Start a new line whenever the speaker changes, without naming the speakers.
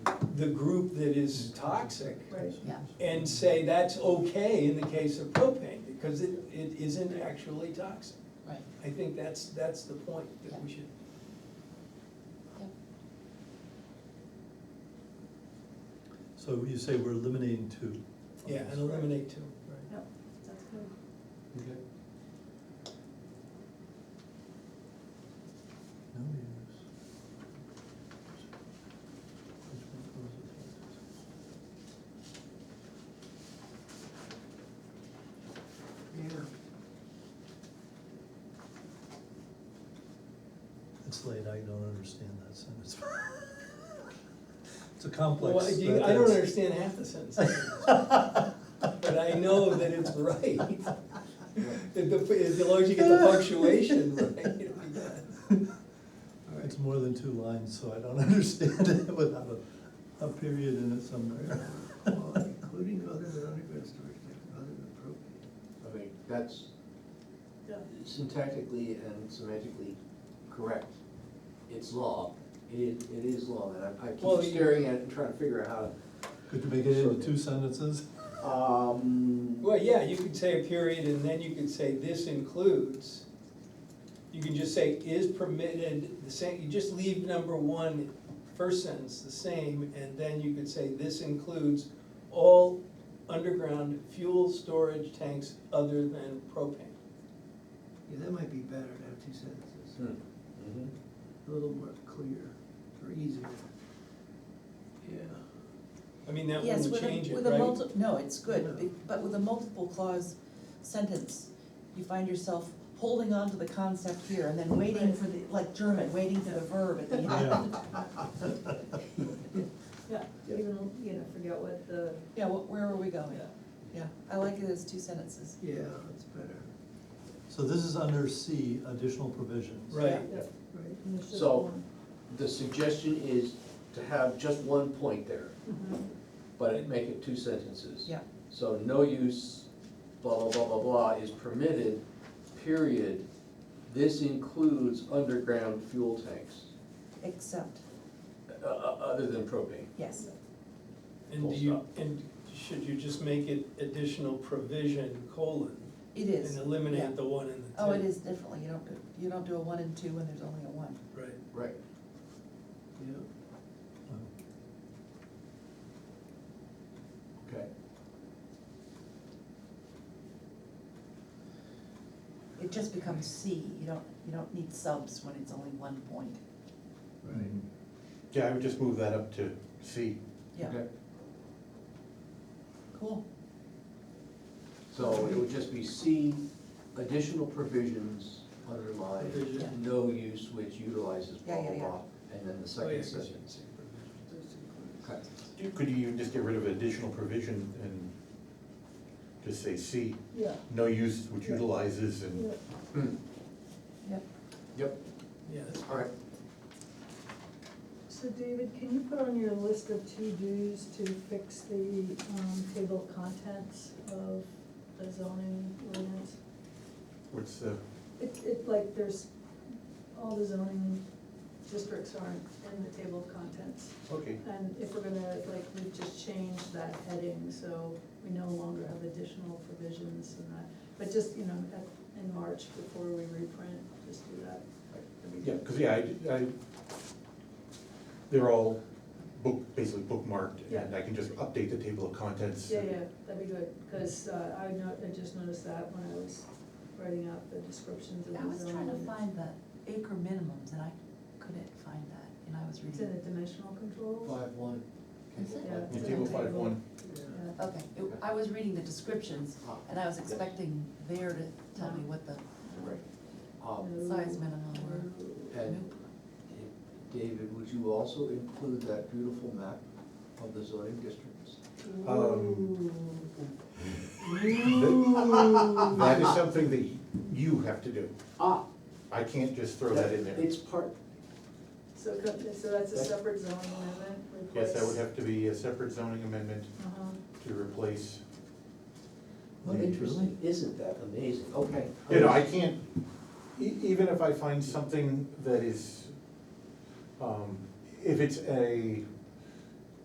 the group that is toxic
Right.
yeah.
and say that's okay in the case of propane, because it, it isn't actually toxic.
Right.
I think that's, that's the point that we should.
So you say we're eliminating two.
Yeah, and eliminate two, right.
Yep, that's good.
Okay. No use. It's late, I don't understand that sentence. It's a complex.
Well, I do- I don't understand half the sentence, but I know that it's right. That the, as long as you get the punctuation right, it'll be good.
It's more than two lines, so I don't understand it without a, a period in it somewhere.
Well, Including other than underground storage, tanks, other than propane.
I mean, that's
Yeah.
syntactically and semantically correct. It's law. It is, it is law, and I- I
Well,
keep
you-
staring at it and trying to figure out
Could you make it into two sentences?
how to, um.
Well, yeah, you could say a period and then you could say this includes. You can just say is permitted, the same, you just leave number one, first sentence the same, and then you could say this includes all underground fuel storage tanks other than propane.
Yeah, that might be better to have two sentences,
Mhm.
a little more clear or easier. Yeah.
I mean, that
Yes,
wouldn't
with a-
change it,
with a
right?
multi- No, it's good, be- but with a multiple clause sentence, you find yourself holding on to the concept here and then waiting for the, like German, waiting for the verb at the end.
Yeah.
Yeah,
Yeah.
even, you know, forget what the,
Yeah, wh- where are we going?
yeah.
Yeah, I like it as two sentences.
Yeah, that's better,
So this is under C, additional provisions.
Right,
right?
and it's just
So-
one.
The suggestion is to have just one point there,
Mhm.
but it make it two sentences.
Yeah.
So no use, blah, blah, blah, blah, blah, is permitted, period. This includes underground fuel tanks,
Except,
uh, uh, other than propane.
yes,
and
Full
do you,
stop.
and should you just make it additional provision colon?
it is.
And
yeah.
eliminate the one and the two?
Oh, it is differently, you don't, do- you don't do a one and two when there's only a one.
Right,
Right.
Yeah,
Oh.
Okay.
It just becomes C, you don't, you don't need subs when it's only one point,
right.
Mm-hmm.
Yeah, I would just move that up to C.
yeah,
Okay.
cool,
So it would just be C, additional provisions underlined,
Yeah.
provision.
no use which utilizes blah,
Yeah, yeah,
blah,
yeah.
blah, and then the
Oh, yeah,
second
'cause you
sentence.
can say provision.
That's included.
Okay.
Could you even just get rid of additional provision and just say C,
Yeah,
no use which utilizes and
yeah.
Hmm.
yep.
Yep,
Yeah, that's
all right.
So David, can you put on your list of to-dos to fix the um, table of contents of the zoning ordinance?
what's the,
It, it like, there's, all the zoning districts aren't in the table of contents.
okay.
And if we're gonna, like, we've just changed that heading, so we no longer have additional provisions and that. But just, you know, at- in March, before we reprint, just do that.
Yeah, because, yeah, I, I, they're all book, basically bookmarked, and
Yeah.
I can just update the table of contents.
Yeah, yeah, that'd be good, because I know, I just noticed that when I was writing out the descriptions of the
I was trying to
zoning.
find the acre minimums and I couldn't find that, and I was
It's in the
reading.
dimensional controls.
Five, one.
Is it?
Yeah, it's
In
in the
table five one,
Yeah.
Okay, it- I was reading the descriptions,
Ah,
and I was expecting there to tell me what the
Right. Um,
size minimum were.
And David, would you also include that beautiful map of the zoning districts?
Um,
Ooh.
that is something that you have to do.
Ah.
I can't just throw that in there.
It's part,
So, co- so that's a separate zoning amendment request?
Yes, that would have to be a separate zoning amendment
Uh-huh.
to replace,
what interesting, isn't that amazing? Okay.
you know, I can't, e- even if I find something that is, um, if it's a